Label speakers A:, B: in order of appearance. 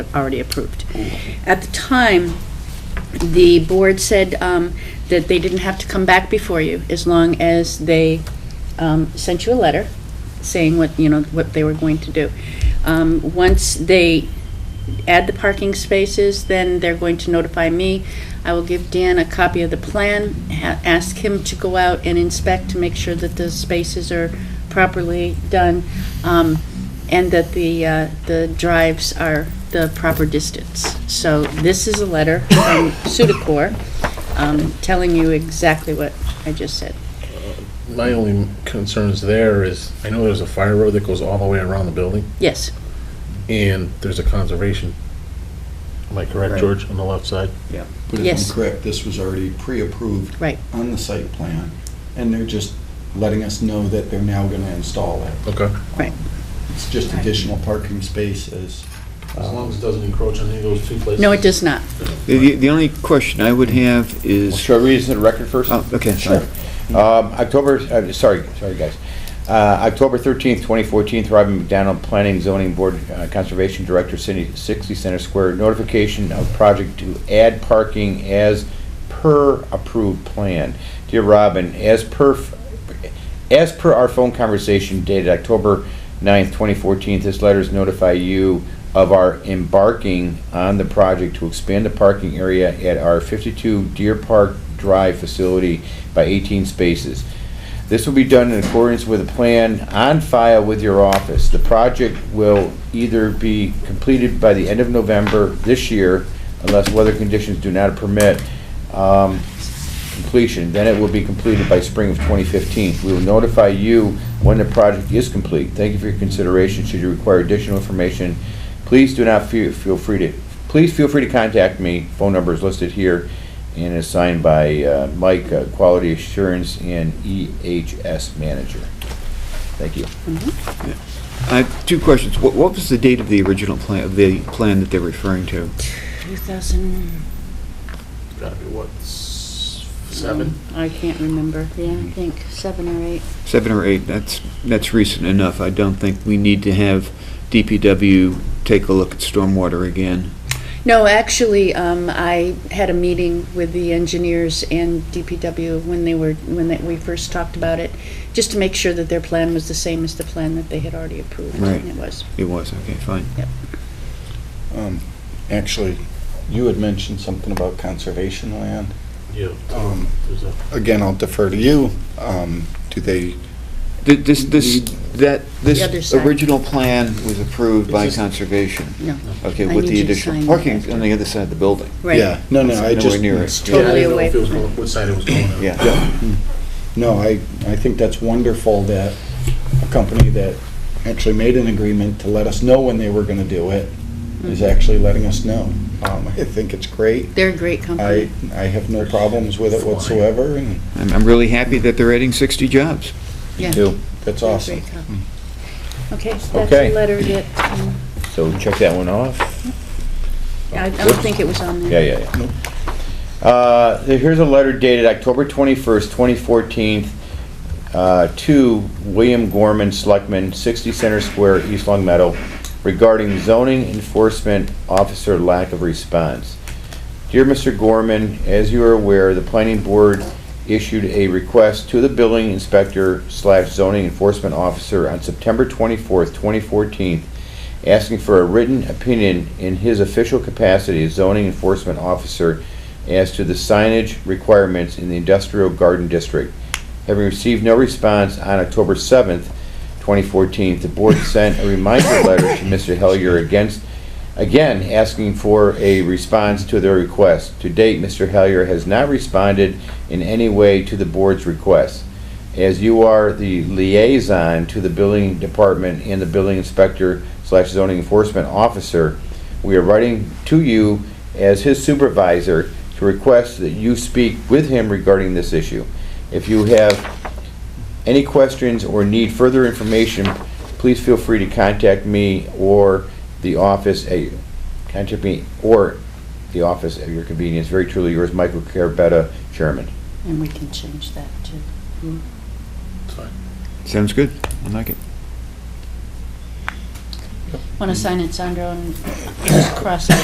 A: already approved. At the time, the board said um, that they didn't have to come back before you as long as they um, sent you a letter saying what, you know, what they were going to do. Um, Once they add the parking spaces, then they're going to notify me. I will give Dan a copy of the plan, ha- ask him to go out and inspect to make sure that the spaces are properly done, um, and that the, uh, the drives are the proper distance. So this is a letter from Sudacor, um, telling you exactly what I just said.
B: My only concerns there is, I know there's a fire road that goes all the way around the building,
A: Yes,
B: and there's a conservation. Am I correct,
C: Right.
B: George, on the left side?
C: But if
A: Yes.
C: I'm correct, this was already pre-approved
A: right.
C: on the site plan, and they're just letting us know that they're now going to install it.
B: Okay.
A: Right.
C: It's just additional parking spaces.
B: As long as it doesn't encroach on any of those two places.
A: No, it does not.
D: The- The, the only question I would have
E: Well,
D: is,
E: Should I read this in the record first?
D: Oh, okay,
E: Sure.
D: sorry.
E: Um, October, uh, sorry, sorry, guys. Uh, October 13th, 2014, Robin McDonald, Planning Zoning Board uh, Conservation Director, City 60 Center Square, notification of project to add parking as per approved plan. Dear Robin, as per, f- as per our phone conversation dated October 9th, 2014, this letter is notify you of our embarking on the project to expand the parking area at our 52 Deer Park Drive facility by 18 spaces. This will be done in accordance with a plan on file with your office. The project will either be completed by the end of November this year, unless weather conditions do not permit um, completion, then it will be completed by spring of 2015. We will notify you when the project is complete. Thank you for your consideration. Should you require additional information, please do not feel feel free to, please feel free to contact me. Phone number is listed here and is signed by uh, Mike, uh, Quality Assurance and EHS Manager. Thank you.
D: I have two questions. What, what was the date of the original plan, of the plan that they're referring to?
A: 2000,
B: Gotta be, what, s- seven?
A: I can't remember. Yeah, I think seven or eight.
D: Seven or eight, that's, that's recent enough. I don't think we need to have DPW take a look at stormwater again.
A: No, actually, um, I had a meeting with the engineers and DPW when they were, when that, we first talked about it, just to make sure that their plan was the same as the plan that they had already approved.
D: Right.
A: And it was.
D: It was, okay, fine.
C: Um, Actually, you had mentioned something about conservation land.
B: Yeah,
C: Um,
B: there's a,
C: Again, I'll defer to you. Um, Do they,
D: Th- This, this, that,
A: The other
D: this
A: side.
D: original plan was approved by
B: It's just-
D: conservation.
A: No.
D: Okay,
A: I
D: with
A: need
D: the
A: you to sign
D: additional
A: that
D: parking
A: after.
D: on the other side of the building.
A: Right.
C: yeah, no, no, I
D: Nowhere
C: just.
D: near it.
A: It's
B: yeah, I
A: totally
B: didn't know
A: away
B: if it was
A: from
B: going,
A: it.
B: which side it was going on.
D: Yeah.
C: No, I, I think that's wonderful that a company that actually made an agreement to let us know when they were gonna do it
A: Mm-hmm.
C: is actually letting us know. Um, I think it's great.
A: They're a great
C: I,
A: company.
C: I have no problems with it whatsoever, and
D: I'm, I'm really happy that they're adding 60 jobs.
A: Yeah.
E: Two.
C: that's
A: They're a
C: awesome.
A: great company. Mm. Okay, so that's
E: Okay.
A: a letter that, um,
E: So check that one off.
A: I I don't think it was on
E: Yeah,
A: there.
E: yeah, yeah. Uh, Here's a letter dated October 21st, 2014, uh, to William Gorman, Selectman, 60 Center Square, East Long Meadow, regarding zoning enforcement officer lack of response. Dear Mr. Gorman, as you are aware, the planning board issued a request to the building inspector slash zoning enforcement officer on September 24th, 2014, asking for a written opinion in his official capacity as zoning enforcement officer as to the signage requirements in the industrial garden district. Having received no response on October 7th, 2014, the board sent a reminder letter to Mr. Hellier against, again, asking for a response to their request. To date, Mr. Hellier has not responded in any way to the board's request. As you are the liaison to the building department and the building inspector slash zoning enforcement officer, we are writing to you as his supervisor to request that you speak with him regarding this issue. If you have any questions or need further information, please feel free to contact me or the office, at contact me or the office at your convenience. Very truly yours, Michael Carabetta, Chairman.
A: And we can change that too.
B: It's fine.
D: Sounds good. I like it.
A: Want to sign it, Sandro, and just cross out